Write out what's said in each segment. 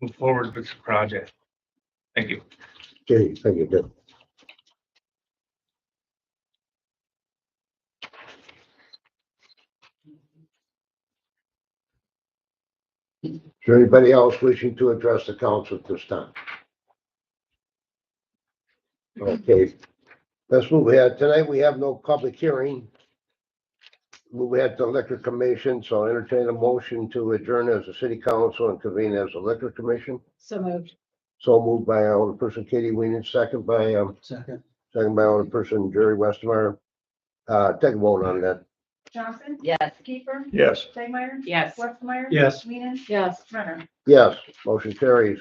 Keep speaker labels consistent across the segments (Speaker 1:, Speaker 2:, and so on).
Speaker 1: move forward with the project. Thank you.
Speaker 2: Okay, thank you, Deb. Is there anybody else wishing to address the council at this time? Okay, let's move ahead. Tonight, we have no public hearing. Move ahead to liquor commission, so entertain a motion to adjourn as a city council and convene as a liquor commission.
Speaker 3: So moved.
Speaker 2: So moved by Alderperson Katie Weenan, second by, um,
Speaker 4: Second.
Speaker 2: second by Alderperson Jerry Westmeyer. Uh, take a vote on that.
Speaker 5: Johnson?
Speaker 3: Yes.
Speaker 5: Kiefer?
Speaker 1: Yes.
Speaker 5: Stegmeyer?
Speaker 3: Yes.
Speaker 5: Westmeyer?
Speaker 4: Yes.
Speaker 5: Weenan?
Speaker 3: Yes.
Speaker 5: Renner?
Speaker 2: Yes, motion carries.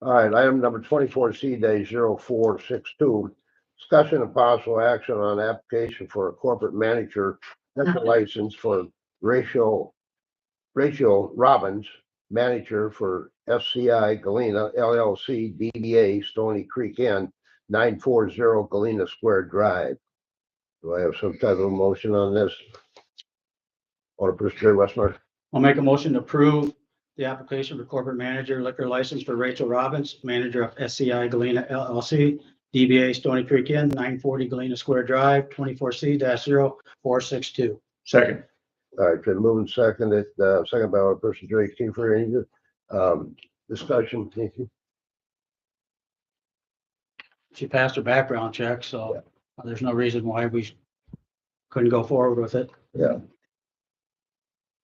Speaker 2: All right, item number twenty-four C day zero four six two. Discussion of possible action on application for a corporate manager liquor license for Rachel, Rachel Robbins, manager for FCI Galena LLC DBA Stony Creek Inn, nine four zero Galena Square Drive. Do I have some type of motion on this? Or Mr. Westmeyer?
Speaker 4: I'll make a motion to approve the application for corporate manager liquor license for Rachel Robbins, manager of SCI Galena LLC, DBA Stony Creek Inn, nine forty Galena Square Drive, twenty-four C 462
Speaker 1: Second.
Speaker 2: All right, been moving second, uh, second by our person Jerry Kiefer, any, um, discussion, Nikki?
Speaker 4: She passed her background check, so there's no reason why we couldn't go forward with it.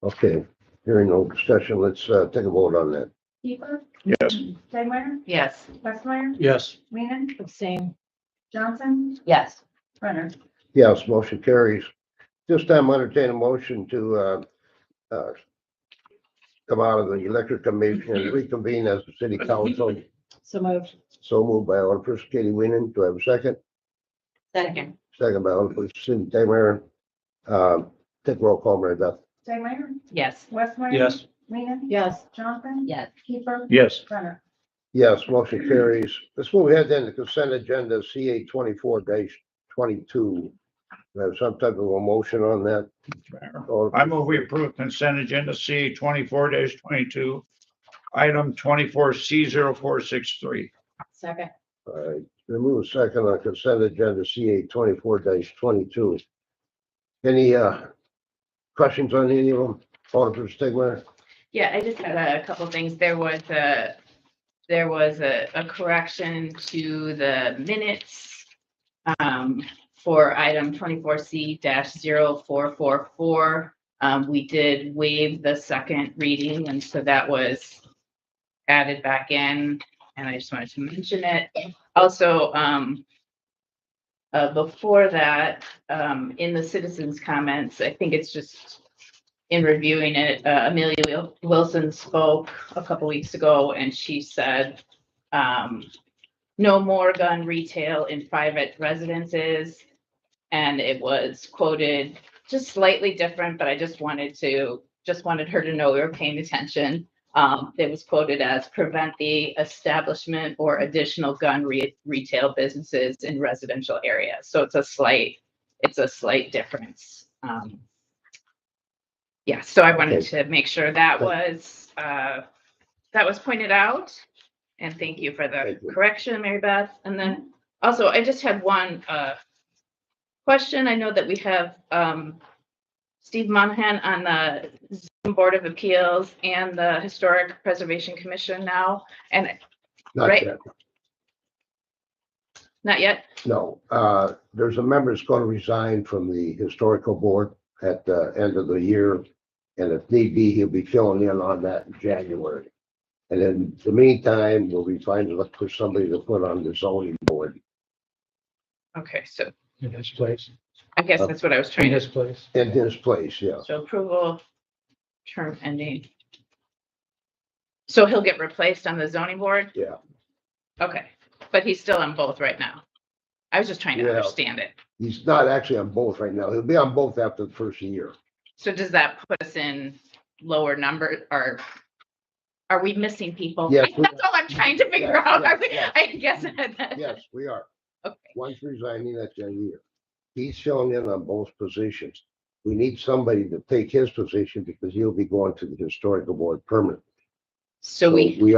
Speaker 2: Okay, hearing no discussion, let's, uh, take a vote on that.
Speaker 5: Kiefer?
Speaker 1: Yes.
Speaker 5: Stegmeyer?
Speaker 3: Yes.
Speaker 5: Westmeyer?
Speaker 4: Yes.
Speaker 5: Weenan?
Speaker 3: Abstain.
Speaker 5: Johnson?
Speaker 3: Yes.
Speaker 5: Renner?
Speaker 2: Yes, motion carries. This time I entertain a motion to, uh, uh, come out of the electric commission and reconvene as the city council.
Speaker 3: So moved.
Speaker 2: So moved by our person Katie Weenan, do I have a second?
Speaker 3: Second.
Speaker 2: Second by our person Daymeyer. Um, take roll call, Mary Beth.
Speaker 5: Stegmeyer?
Speaker 3: Yes.
Speaker 5: Westmeyer?
Speaker 4: Yes.
Speaker 5: Weenan?
Speaker 3: Yes.
Speaker 5: Johnson?
Speaker 3: Yes.
Speaker 5: Kiefer?
Speaker 1: Yes.
Speaker 5: Renner?
Speaker 2: Yes, motion carries. Let's move ahead then to consent agenda CA twenty-four twenty-two. Have some type of a motion on that? Or-
Speaker 6: I move we approve consent agenda C twenty-four twenty-two, item twenty-four C 463
Speaker 3: Second.
Speaker 2: All right, we uh, move second on consent agenda CA twenty-four twenty-two. Any, uh, questions on any of them? Alderman Stigmeyer?
Speaker 7: Yeah, I just had a couple things. There was a, there was a, a correction to the minutes um, for item twenty-four C 444 Um, we did waive the second reading, and so that was added back in, and I just wanted to mention it. Also, um, uh, before that, um, in the citizens' comments, I think it's just in reviewing it, uh, Amelia Wil- Wilson spoke a couple weeks ago and she said, um, no more gun retail in private residences. And it was quoted just slightly different, but I just wanted to, just wanted her to know we were paying attention. Um, it was quoted as prevent the establishment or additional gun re- retail businesses in residential areas. So it's a slight, it's a slight difference. Um, yeah, so I wanted to make sure that was, uh, that was pointed out. And thank you for the
Speaker 2: Thank you.
Speaker 7: correction, Mary Beth. And then also, I just had one, uh, question. I know that we have, um, Steve Monahan on the Zoom Board of Appeals and the Historic Preservation Commission now. And
Speaker 2: Not
Speaker 7: Right.
Speaker 2: yet,
Speaker 7: not yet,
Speaker 2: No, uh, there's a member that's gonna resign from the historical board at the end of the year. And if need be, he'll be filling in on that in January. And in the meantime, we'll be trying to look for somebody to put on the zoning board
Speaker 7: okay, so
Speaker 4: In his place.
Speaker 7: I guess that's what I was trying to,
Speaker 4: place.
Speaker 2: in his place, yeah.
Speaker 7: so approval, term ending. So he'll get replaced on the zoning board?
Speaker 2: Yeah.
Speaker 7: Okay, but he's still on both right now. I was just trying to
Speaker 2: Yeah.
Speaker 7: understand it.
Speaker 2: He's not actually on both right now. He'll be on both after the first year.
Speaker 7: So does that put us in lower number or are we missing people?
Speaker 2: Yes, we-
Speaker 7: That's all I'm trying to figure
Speaker 2: Yeah,
Speaker 7: out.
Speaker 2: yeah,
Speaker 7: Are we-
Speaker 2: yeah.
Speaker 7: I guess. that-
Speaker 2: Yes, we are.
Speaker 7: Okay.
Speaker 2: One's resigning at the end of the year. He's filling in on both positions. We need somebody to take his position because he'll be going to the historical board permanently.
Speaker 7: So we